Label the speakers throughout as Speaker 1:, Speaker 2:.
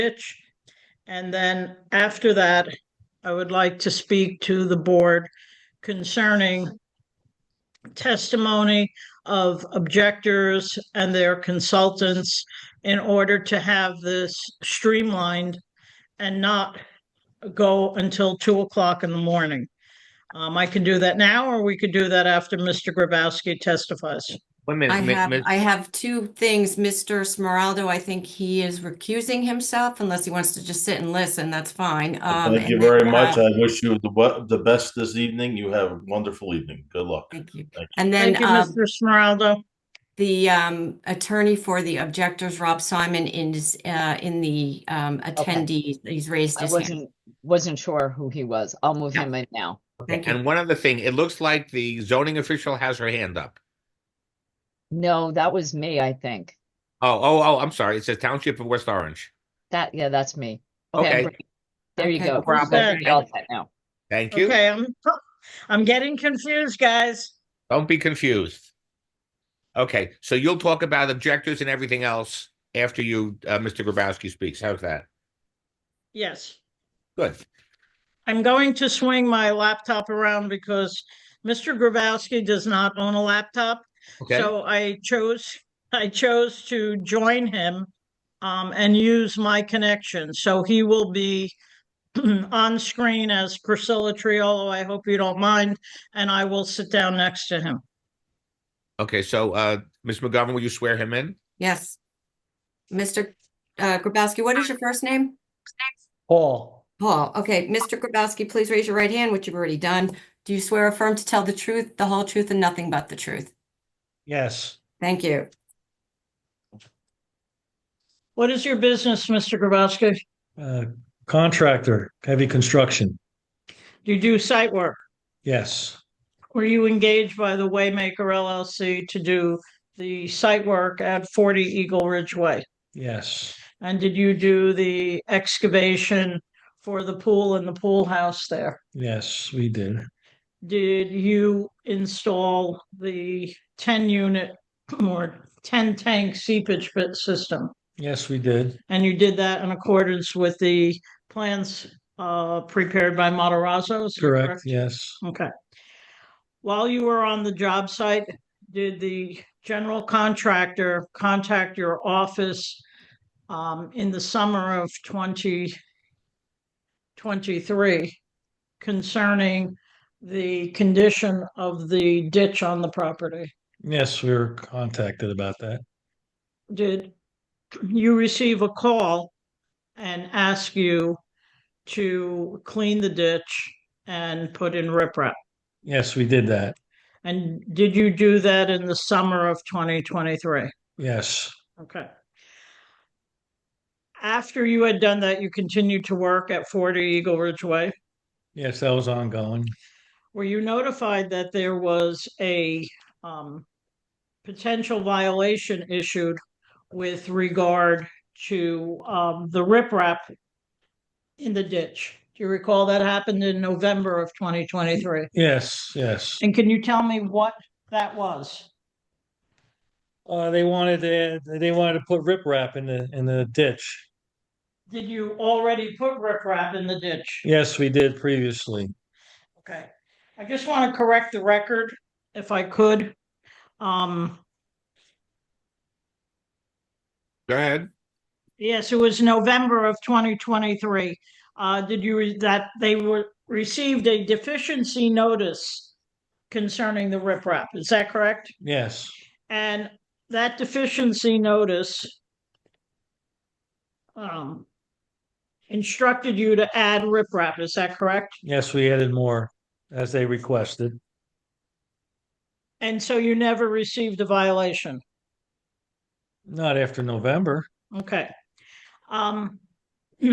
Speaker 1: ditch. And then after that, I would like to speak to the board concerning testimony of objectors and their consultants in order to have this streamlined and not go until two o'clock in the morning. Um, I can do that now, or we could do that after Mr. Grabowski testifies.
Speaker 2: One
Speaker 3: I
Speaker 2: minute, mi-
Speaker 3: have,
Speaker 2: mi-
Speaker 3: I have two things. Mr. Smeraldo, I think he is recusing himself unless he wants to just sit and listen, that's fine. Um,
Speaker 4: Thank you
Speaker 3: and
Speaker 4: very
Speaker 3: then,
Speaker 4: much.
Speaker 3: uh,
Speaker 4: I wish you the we- the best this evening. You have a wonderful evening. Good luck.
Speaker 3: Thank you.
Speaker 4: Thank
Speaker 3: And
Speaker 1: Thank
Speaker 3: then
Speaker 2: um,
Speaker 1: you,
Speaker 3: uh,
Speaker 1: Mr. Smeraldo.
Speaker 3: the um, attorney for the objectors, Rob Simon, is uh, in the um, attendees, he's raised
Speaker 5: I
Speaker 3: his hand.
Speaker 5: wasn't, wasn't sure who he was. I'll move
Speaker 3: No.
Speaker 5: him in now.
Speaker 3: Thank you.
Speaker 2: and one other thing, it looks like the zoning official has her hand up.
Speaker 5: No, that was me, I think.
Speaker 2: Oh, oh, oh, I'm sorry. It says Township of West Orange.
Speaker 5: That, yeah, that's me. Okay,
Speaker 2: Okay.
Speaker 5: great. There you
Speaker 3: Okay,
Speaker 5: go.
Speaker 3: no problem.
Speaker 5: That's what we all said Now,
Speaker 2: Thank you.
Speaker 1: Okay, I'm, I'm getting confused, guys.
Speaker 2: Don't be confused. Okay, so you'll talk about objectors and everything else after you, uh, Mr. Grabowski speaks. How's that?
Speaker 1: Yes.
Speaker 2: Good.
Speaker 1: I'm going to swing my laptop around because Mr. Grabowski does not own a laptop.
Speaker 2: Okay,
Speaker 1: So I chose, I chose to join him um, and use my connection. So he will be on screen as Priscilla Triolo. I hope you don't mind. And I will sit down next to him.
Speaker 2: okay, so, uh, Ms. McGovern, will you swear him in?
Speaker 3: Yes. Mr. uh, Grabowski, what is your first name?
Speaker 1: Paul.
Speaker 3: Paul. Okay, Mr. Grabowski, please raise your right hand, which you've already done. Do you swear affirm to tell the truth, the whole truth, and nothing but the truth?
Speaker 1: Yes.
Speaker 3: Thank you.
Speaker 1: What is your business, Mr. Grabowski?
Speaker 6: Uh, Contractor, heavy construction,
Speaker 1: Do you do site work?
Speaker 6: yes,
Speaker 1: Were you engaged by the Waymaker LLC to do the site work at 40 Eagle Ridge Way?
Speaker 6: yes,
Speaker 1: And did you do the excavation for the pool and the pool house there?
Speaker 6: yes, we did,
Speaker 1: Did you install the 10 unit or 10 tank seepage pit system?
Speaker 6: yes, we did,
Speaker 1: And you did that in accordance with the plans uh, prepared by Matarazzo? is that
Speaker 6: correct, yes,
Speaker 1: Okay. While you were on the job site, did the general contractor contact your office um, in the summer of twenty twenty-three concerning the condition of the ditch on the property?
Speaker 6: yes, we were contacted about that,
Speaker 1: Did you receive a call and ask you to clean the ditch and put in riprap?
Speaker 6: yes, we did that,
Speaker 1: And did you do that in the summer of 2023?
Speaker 6: yes,
Speaker 1: Okay. After you had done that, you continued to work at 40 Eagle Ridge Way.
Speaker 6: yes, that was ongoing,
Speaker 1: Were you notified that there was a um, potential violation issued with regard to um, the riprap in the ditch? Do you recall that happened in November of 2023?
Speaker 6: yes, yes.
Speaker 1: And can you tell me what that was?
Speaker 6: Uh, they wanted to, they wanted to put riprap in the, in the ditch,
Speaker 1: Did you already put riprap in the ditch?
Speaker 6: yes, we did previously,
Speaker 1: Okay, I just want to correct the record if I could. Um,
Speaker 2: Go ahead.
Speaker 1: yes, it was November of twenty twenty-three. Uh, did you, re- that they were, received a deficiency notice concerning the riprap, is that correct?
Speaker 6: yes,
Speaker 1: And that deficiency notice um, instructed you to add riprap, is that correct?
Speaker 6: yes, we added more as they requested,
Speaker 1: And so you never received a violation?
Speaker 6: not after November,
Speaker 1: Okay. Um,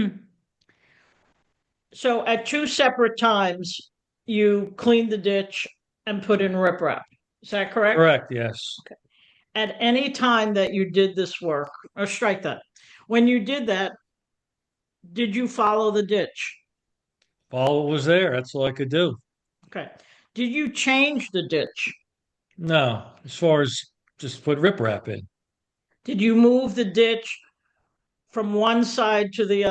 Speaker 1: so at two separate times, you cleaned the ditch and put in riprap. Is that correct?
Speaker 6: correct, yes,
Speaker 1: At any time that you did this work, or strike that, when you did that, did you follow the ditch?
Speaker 6: all was there, that's all I could do.
Speaker 1: Okay. Did you change the ditch?
Speaker 6: No, as far as just put riprap in.
Speaker 1: Did you move the ditch from one side to the